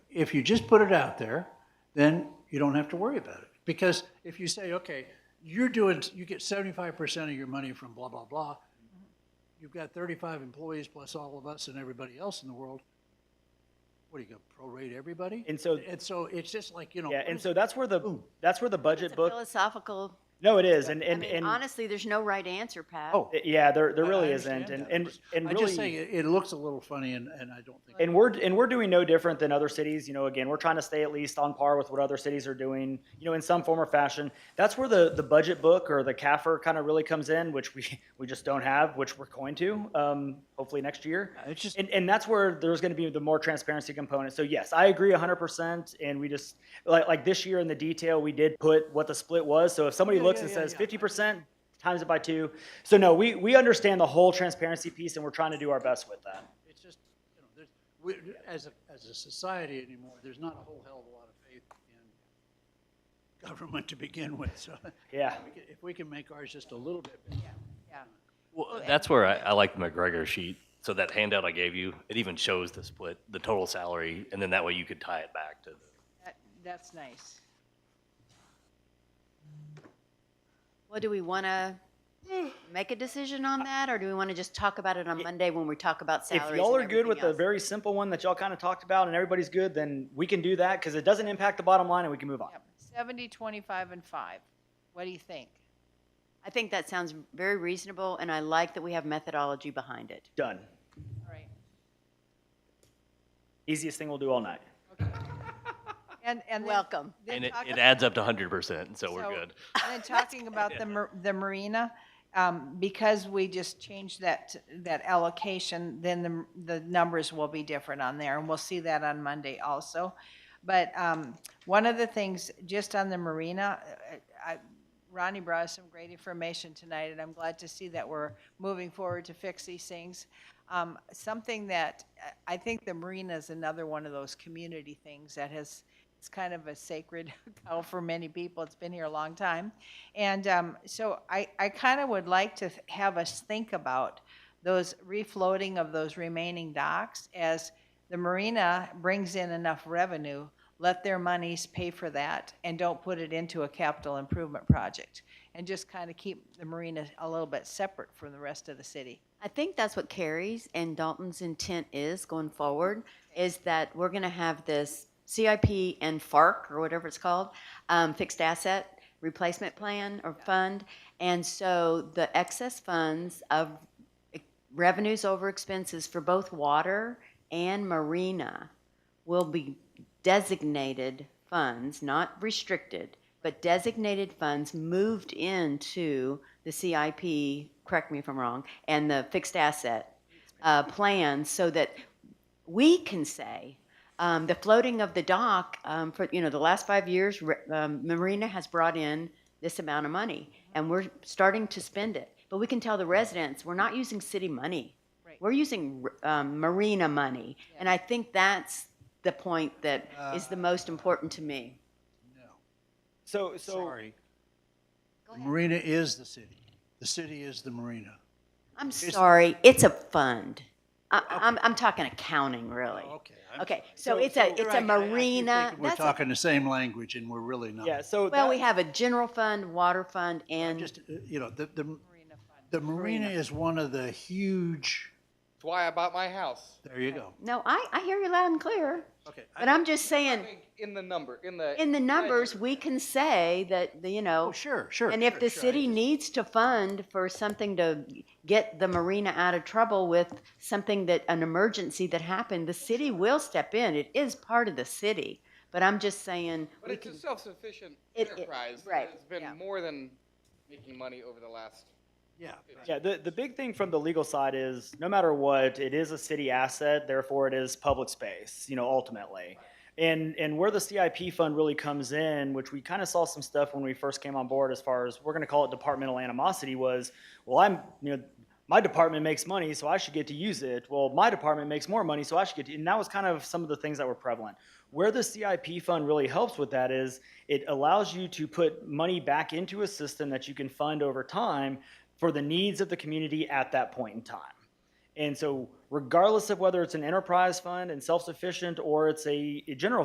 If you just put it out there, then you don't have to worry about it. Because if you say, okay, you're doing, you get seventy-five percent of your money from blah, blah, blah, you've got thirty-five employees plus all of us and everybody else in the world, what are you gonna prorate everybody? And so- And so it's just like, you know. Yeah, and so that's where the, that's where the budget It's a book, philosophical, no, it is, and, I and, mean, and, honestly, there's no right answer, Pat. Oh. yeah, there, there I- I really understand isn't, and, that. I'm and, just- and I really. just say it, it looks a little funny and, and I don't think. And we're and we're doing no different than other cities. You know, again, we're trying to stay at least on par with what other cities are doing. You know, in some form or fashion. That's where the the budget book or the CAFR kind of really comes in, which we we just don't have, which we're going to um, hopefully next year. It's just, And, and that's where there's going to be the more transparency component. So yes, I agree 100%. And we just like like this year in the detail, we did put what the split was. So if somebody Yeah, looks yeah, and yeah, says yeah. 50% times it by two, so no, we we understand the whole transparency piece, and we're trying to do our best with that. it's just, you know, there's, we, as a, as a society anymore, there's not a whole hell of a lot of faith in government to begin with, so Yeah. we can- if we can make ours just a little bit better. Yeah. Well, that's where I, I like the McGregor sheet. So that handout I gave you, it even shows the split, the total salary, and then that way you could tie it back to. That, that's nice. Well, do we want to Mm. make a decision on that, or do we want to just talk about it on Monday when we talk about if salaries y'all and are good with everything the else? very simple one that y'all kind of talked about and everybody's good, then we can do that because it doesn't impact the bottom line and we can move on. Yep. 70, 25, and 5. What do you think? I think that sounds very reasonable, and I like that we have methodology behind it. Done. All right. Easiest thing we'll do all night. And, and then- Welcome. then And it, talk it about- adds up to hundred percent, so we're So- good. And then talking about the, mar- the marina, um, because we just changed that, that allocation, then the, the numbers will be different on there, and we'll see that on Monday also. But, um, one of the things, just on the marina, uh, I, Ronnie brought us some great information tonight, and I'm glad to see that we're moving forward to fix these things. Um, something that, I- I think the marina is another one of those community things that has, it's kind of a sacred cow for many people. It's been here a long time. And um, so I, I kind of would like to th- have us think about those refloating of those remaining docks as the marina brings in enough revenue, let their monies pay for that and don't put it into a capital improvement project. And just kind of keep the marina a little bit separate from the rest of the city. I think that's what Carrie's and Dalton's intent is going forward, is that we're gonna have this CIP and FARC, or whatever it's called, um, fixed asset replacement plan or fund. And so the excess funds of e, revenues over expenses for both water and marina will be designated funds, not restricted, but designated funds moved into the CIP, correct me if I'm wrong, and the fixed asset uh, plan so that we can say, um, the floating of the dock, um, for, you know, the last five years, re- um, Marina has brought in this amount of money, and we're starting to spend it. But we can tell the residents, we're not using city money. Right. We're using um, Marina money. And I think that's the point that is the most important to me. No, So, so sorry. The marina is the city. The city is the marina. I'm sorry, it's a fund. I, I'm, I'm talking accounting, really. Oh, Okay. Okay, so it's a, it's a marina. We're that's a- talking the same language and we're really not. yeah, so Well, that- we have a general fund, water fund, and Just, uh, you know, the, the, Marina fund. the marina is one of the huge, That's why I bought my house. there you go. no, I, I hear you loud and clear. Okay. But I'm just saying, In the number, in the. in the numbers, we can say that, the- you know, Oh, sure, sure. and if sure, the sure. I city just- needs to fund for something to get the marina out of trouble with something that, an emergency that happened, the city will step in. It is part of the city. But I'm just saying, But we it's can, a self-sufficient It- it- enterprise. right, It's been more than making money over the last. Yeah. yeah, the, the big thing from the legal side is no matter what, it is a city asset, therefore it is public space, you know, ultimately. And, and where the CIP fund really comes in, which we kind of saw some stuff when we first came on board as far as, we're going to call it departmental animosity, was, well, I'm, you know, my department makes money, so I should get to use it. Well, my department makes more money, so I should get to, and that was kind of some of the things that were prevalent. Where the CIP fund really helps with that is it allows you to put money back into a system that you can fund over time for the needs of the community at that point in time. And so, regardless of whether it's an enterprise fund and self sufficient or it's a, a general